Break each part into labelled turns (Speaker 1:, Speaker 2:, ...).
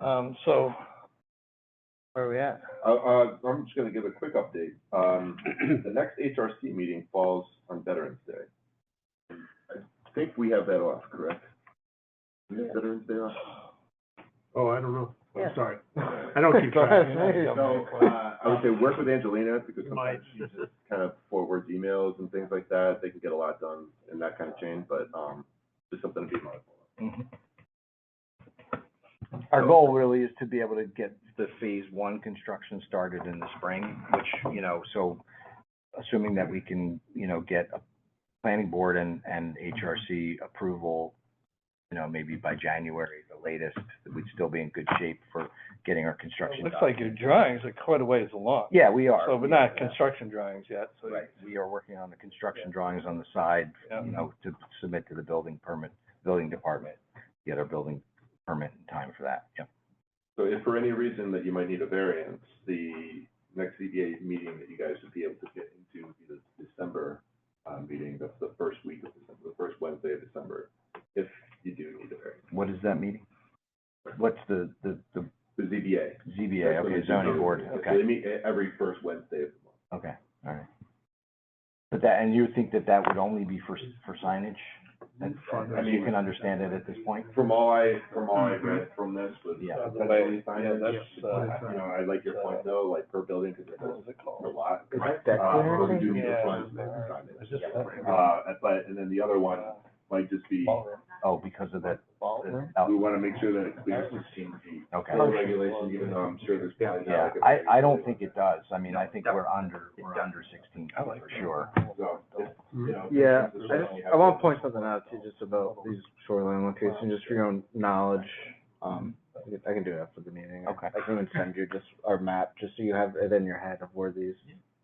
Speaker 1: Um, so, where are we at?
Speaker 2: Uh, uh, I'm just gonna give a quick update. Um, the next HRC meeting falls on Veterans Day. I think we have that off, correct? We have Veterans Day off?
Speaker 3: Oh, I don't know. I'm
Speaker 1: Yeah.
Speaker 3: sorry. I don't keep
Speaker 1: Go
Speaker 3: track.
Speaker 1: ahead, maybe I'll
Speaker 2: So,
Speaker 1: make one.
Speaker 2: uh, I would say work with Angelina because
Speaker 3: You
Speaker 2: sometimes she just kind of forwards emails and things like that. They can get a lot done in that kind of chain, but, um, just something to be mindful of.
Speaker 4: Our goal really is to be able to get the phase one construction started in the spring, which, you know, so assuming that we can, you know, get a planning board and, and HRC approval, you know, maybe by January, the latest, we'd still be in good shape for getting our
Speaker 1: It
Speaker 4: construction done.
Speaker 1: Looks like your drawings are quite a ways along.
Speaker 4: Yeah, we are.
Speaker 1: So, but not construction drawings yet, so.
Speaker 4: Right, we are working on the construction drawings on the side,
Speaker 1: Yeah.
Speaker 4: you know, to submit to the building permit, building department, get our building permit in time for that, yeah.
Speaker 2: So if for any reason that you might need a variance, the next ZBA meeting that you guys would be able to get into would be the December, uh, meeting, that's the first week of December, the first Wednesday of December, if you do need a variance.
Speaker 4: What is that meeting? What's the, the, the
Speaker 2: The ZBA.
Speaker 4: ZBA,
Speaker 2: That's when
Speaker 4: okay,
Speaker 2: they
Speaker 4: zoning
Speaker 2: do-
Speaker 4: board,
Speaker 2: They
Speaker 4: okay,
Speaker 2: meet e- every first Wednesday of the month.
Speaker 4: okay, all right. But that, and you think that that would only be for, for signage? And,
Speaker 3: Fundraising.
Speaker 4: and you can understand it at this point?
Speaker 2: From all I, from all I read from this was,
Speaker 4: Mm-hmm. Yeah.
Speaker 2: uh,
Speaker 1: But
Speaker 2: that's
Speaker 1: I,
Speaker 2: only
Speaker 1: yeah,
Speaker 2: signage.
Speaker 1: that's, uh,
Speaker 2: I- You know, I like your point though, like per building, because it
Speaker 1: what
Speaker 2: does
Speaker 1: is it called?
Speaker 2: a lot.
Speaker 4: Is that
Speaker 2: Uh, but
Speaker 4: declarative?
Speaker 2: We do need
Speaker 1: Yeah.
Speaker 2: a sign- signage.
Speaker 1: Is this-
Speaker 2: Uh, but, and then the other one might just be,
Speaker 1: Ballroom.
Speaker 4: Oh, because of that,
Speaker 1: Ballroom?
Speaker 4: oh,
Speaker 2: we want to make sure that it clears sixteen feet.
Speaker 4: okay,
Speaker 2: Code regulation, even though I'm sure there's probably not.
Speaker 4: yeah,
Speaker 2: like a
Speaker 4: I,
Speaker 2: very-
Speaker 4: I don't think it does, I mean, I think we're under, we're under sixteen
Speaker 1: I
Speaker 4: feet
Speaker 1: like
Speaker 4: for sure.
Speaker 2: So, it's,
Speaker 3: Hmm?
Speaker 2: you know,
Speaker 5: Yeah,
Speaker 2: it's
Speaker 5: I just,
Speaker 2: something you
Speaker 5: I
Speaker 2: have
Speaker 5: wanna point something out to you just about these shoreline locations, just for your own knowledge. Um, I can- I can do it after the meeting.
Speaker 4: Okay.
Speaker 5: I can even send you just our map, just so you have it in your head of where these,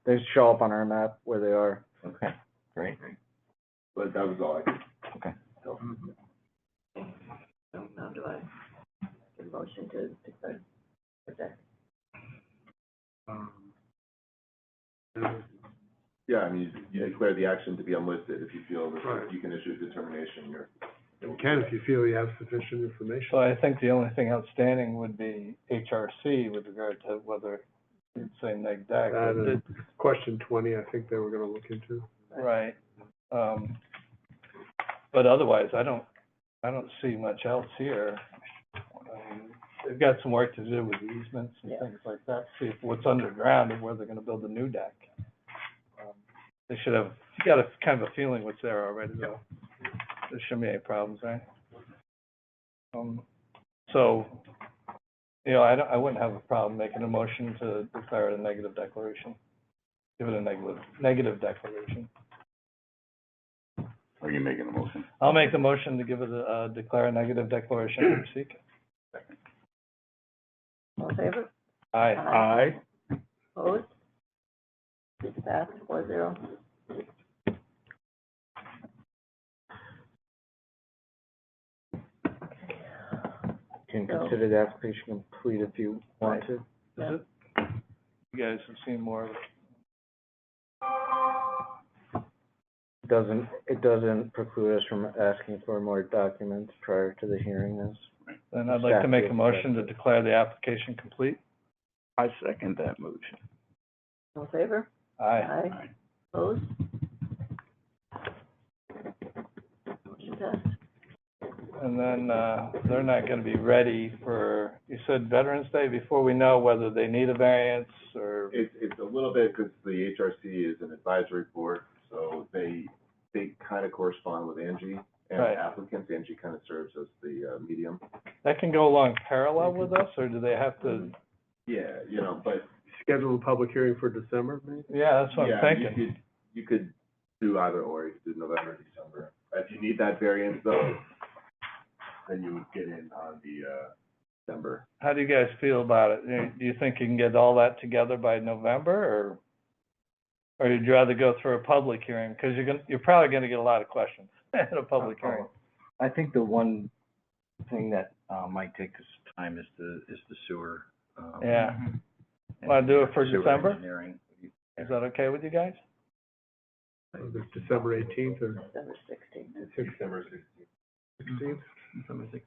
Speaker 5: they show up on our map where they are.
Speaker 4: Okay, great,
Speaker 2: But that was all I could.
Speaker 4: Okay.
Speaker 2: So,
Speaker 6: So now do I get a motion to declare the deck?
Speaker 3: Um,
Speaker 2: Yeah, I mean, you you declare the action to be unlisted if you feel that
Speaker 3: Right.
Speaker 2: you can issue a determination here.
Speaker 3: You can if you feel you have sufficient information.
Speaker 1: So I think the only thing outstanding would be HRC with regard to whether, you'd say neg deck.
Speaker 3: That
Speaker 1: but
Speaker 3: is question twenty, I think they were gonna look into.
Speaker 1: it- Right. Um, but otherwise, I don't, I don't see much else here. Um, They've got some work to do with easements and
Speaker 6: Yeah.
Speaker 1: things like that, see if what's underground and where they're gonna build the new deck. Um, They should have, you got a, kind of a feeling what's there already, though. There shouldn't be any problems, right? Um, so, you know, I don't, I wouldn't have a problem making a motion to declare it a negative declaration. Give it a negative, negative declaration.
Speaker 2: Are you making a motion?
Speaker 1: I'll make the motion to give it a, uh, declare a negative declaration for Sika.
Speaker 6: All in favor?
Speaker 1: Aye.
Speaker 6: Aye. Opposed? It's passed four zero.
Speaker 5: You can
Speaker 6: So-
Speaker 5: consider the application complete if you want
Speaker 1: Right.
Speaker 5: to.
Speaker 1: Is it? You guys have seen more of it.
Speaker 5: It Doesn't, it doesn't preclude us from asking for more documents prior to the hearing is.
Speaker 1: Then I'd like to make a
Speaker 5: Exactly.
Speaker 1: motion to declare the application complete.
Speaker 6: All in favor?
Speaker 1: Aye.
Speaker 6: Opposed? Motion passed.
Speaker 1: And then, uh, they're not gonna be ready for, you said Veterans Day, before we know whether they need a variance or,
Speaker 2: It's, it's a little bit, because the HRC is an advisory board, so they, they kind of correspond with Angie and
Speaker 1: Right.
Speaker 2: applicants. Angie kind of serves as the uh, medium.
Speaker 1: that can go along parallel with us, or do they have to,
Speaker 2: Yeah, you know, but,
Speaker 3: Schedule a public hearing for December, maybe?
Speaker 1: yeah, that's what I'm
Speaker 2: yeah, you
Speaker 1: thinking.
Speaker 2: could, you could do either or, you could do November, December. If you need that variance though, then you would get in on the, uh, December.
Speaker 1: How do you guys feel about it? Do you- Do you think you can get all that together by November, or, or you'd rather go through a public hearing? Because you're gonna, you're probably gonna get a lot of questions at a public hearing.
Speaker 4: I think the one thing that, uh, might take us time is the, is the sewer, um.
Speaker 1: Yeah. Wanna do it for
Speaker 4: sewer
Speaker 1: December?
Speaker 4: engineering.
Speaker 1: Is that okay with you guys?
Speaker 3: Either December eighteenth or
Speaker 6: December sixteenth.
Speaker 2: December sixteenth.
Speaker 3: sixteenth?